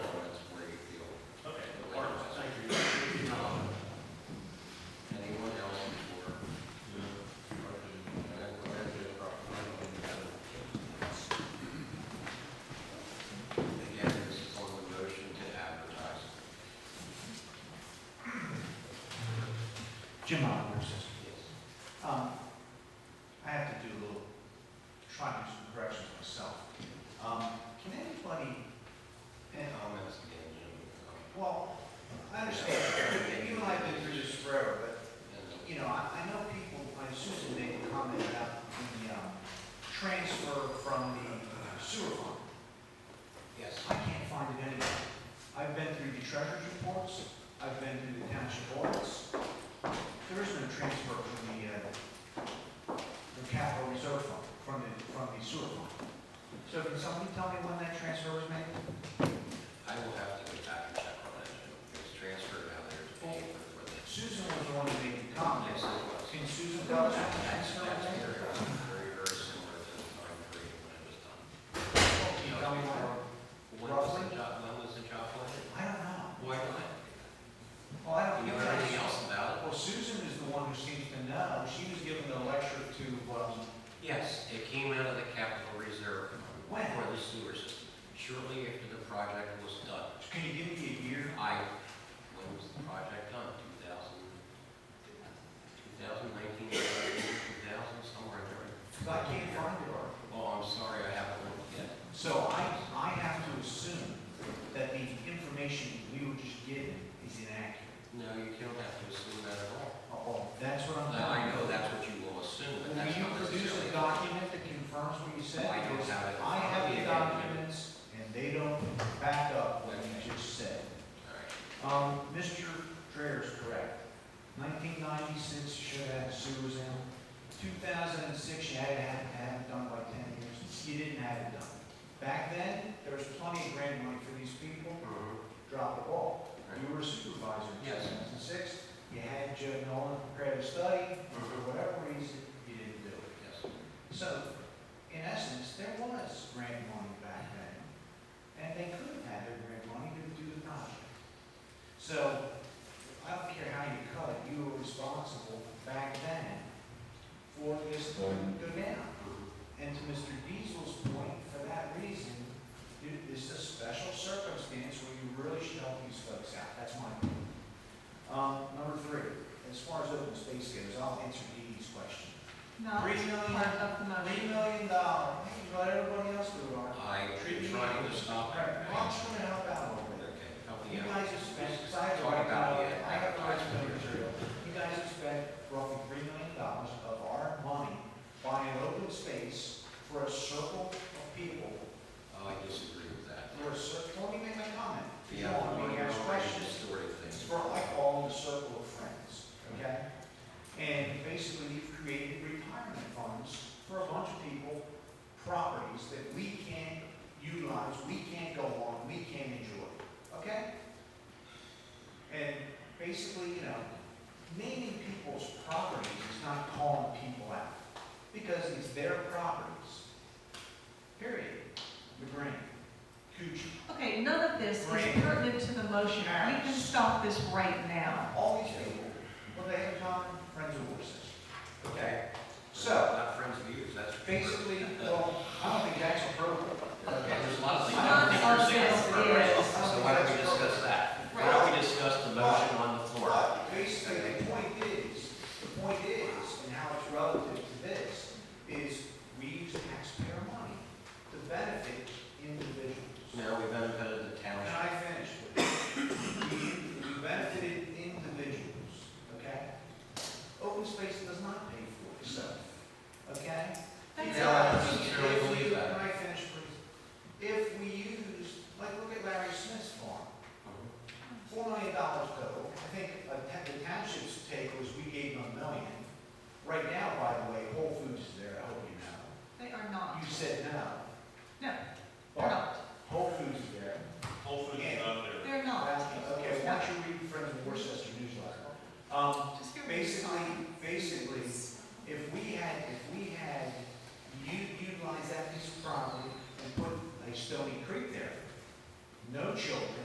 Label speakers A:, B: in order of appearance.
A: Jim Oliver's sister, yes. Um, I have to do a little, try to do some corrections myself. Um, Can anybody, and, um,
B: Comments again, Jim.
A: well, I understand, you and I have been through this forever, but you know, I, I know people, I Susan made a comment about the, um, transfer from the sewer fund.
B: Yes.
A: I can't find it anywhere. I've been through the treasurer's reports, I've been through the township audits. There is no transfer from the, uh, the capital reserve fund, from the, from the sewer fund. So can somebody tell me when that transfer was made?
B: I will have to go back and check on that, Jim. It was transferred out there to pay for the.
A: Susan was the one who made the comment.
B: Yes, it was.
A: Can Susan tell us when the
B: That's,
A: transfer
B: that's
A: was made?
B: very, very, very similar to the time period when it was done.
A: Can you tell me when?
B: When was the job, when was the job plan?
A: I don't know.
B: Why not?
A: Well, I don't.
B: You know
A: think I-
B: anything else about it?
A: Well, Susan is the one who seems to know. She was given the lecture to, um,
B: Yes, it came out of the capital reserve
A: When?
B: for the sewer system, shortly after the project was done.
A: can you give me a year?
B: I, when was the project done, 2000, 2019, 2000, somewhere in there?
A: 'Cause I can't find her.
B: Oh, I'm sorry, I haven't looked yet.
A: So I, I have to assume that the information we were just given is inaccurate.
B: No, you don't have to assume that at all.
A: Oh, that's what I'm.
B: Now, I know that's what you will assume, but
A: Will
B: that's
A: you
B: not
A: produce
B: necessarily.
A: a document that confirms what you said?
B: I don't have it.
A: I have the documents and they don't back up what you just said.
B: All right.
A: Um, Mr. Dreyer is correct. Nineteen ninety-six, you should have had sewers in. Two thousand and six, you had to have, have it done by ten years. You didn't have it done. Back then, there was plenty of grant money for these people.
B: Mm-hmm.
A: Drop the ball. You were a supervisor in two
B: Yes.
A: thousand and six. You had Joe Nolan prepare a study. For whatever reason, you didn't do it.
B: Yes.
A: So, in essence, there was grant money back then, and they could have had their grant money to do the project. So, I don't care how you cut it, you were responsible back then for this to go down. And to Mr. Diesel's point, for that reason, it- it's a special circumstance where you really should help these folks out, that's my opinion. Um, number three, as far as open space goes, I'll answer Dee Dee's question.
C: No,
A: Three
C: it's
A: million.
C: part of the
A: Three
C: motion.
A: million dollars, you let everybody else do it, all right?
B: I'm trying to stop.
A: All right, well, I'm just gonna help out a little bit.
B: Okay, help me
A: You
B: out.
A: guys have spent, 'cause I have. a-
B: Talk about the
A: I have a lot of
B: advertisement.
A: material. You guys have spent roughly three million dollars of our money buying open space for a circle of people,
B: Oh, I disagree with that.
A: for a circle, don't even make my comment. You
B: Yeah,
A: don't
B: I'm
A: want me
B: going
A: to ask
B: to
A: questions.
B: story of things.
A: It's for like all in the circle of friends, okay? And basically, you've created retirement funds for a bunch of people, properties that we can't utilize, we can't go on, we can't enjoy, okay? And basically, you know, naming people's properties is not calling people out, because it's their properties. Period. The Green, Coochie,
C: Okay, none of this is
A: Right.
C: pertinent to the motion. We can stop this right now.
A: all these people, what they have in common, friends of horses.
B: Okay.
A: So-
B: Not friends of yours, that's.
A: Basically, well, I don't think that's appropriate.
B: Okay, There's a lot of things.
C: None of this is.
B: So why don't we discuss that? Why don't we discuss the motion on the floor?
A: But basically, the point is, the point is, and how it's relative to this, is we use taxpayer money to benefit individuals.
B: Now, we benefited the
A: And
B: township.
A: I finished with it. We we benefited individuals, okay? Open space does not pay for itself, okay?
C: That's
B: Yeah,
C: all.
B: I sincerely
A: If we-
B: believe that.
A: Can I finish, please? If we used, like, look at Larry Smith's farm, four million dollars total, I think uh, ta- the township's take was we gave them a million. Right now, by the way, Whole Foods is there, I hope you know.
C: They are not.
A: You said no. Um,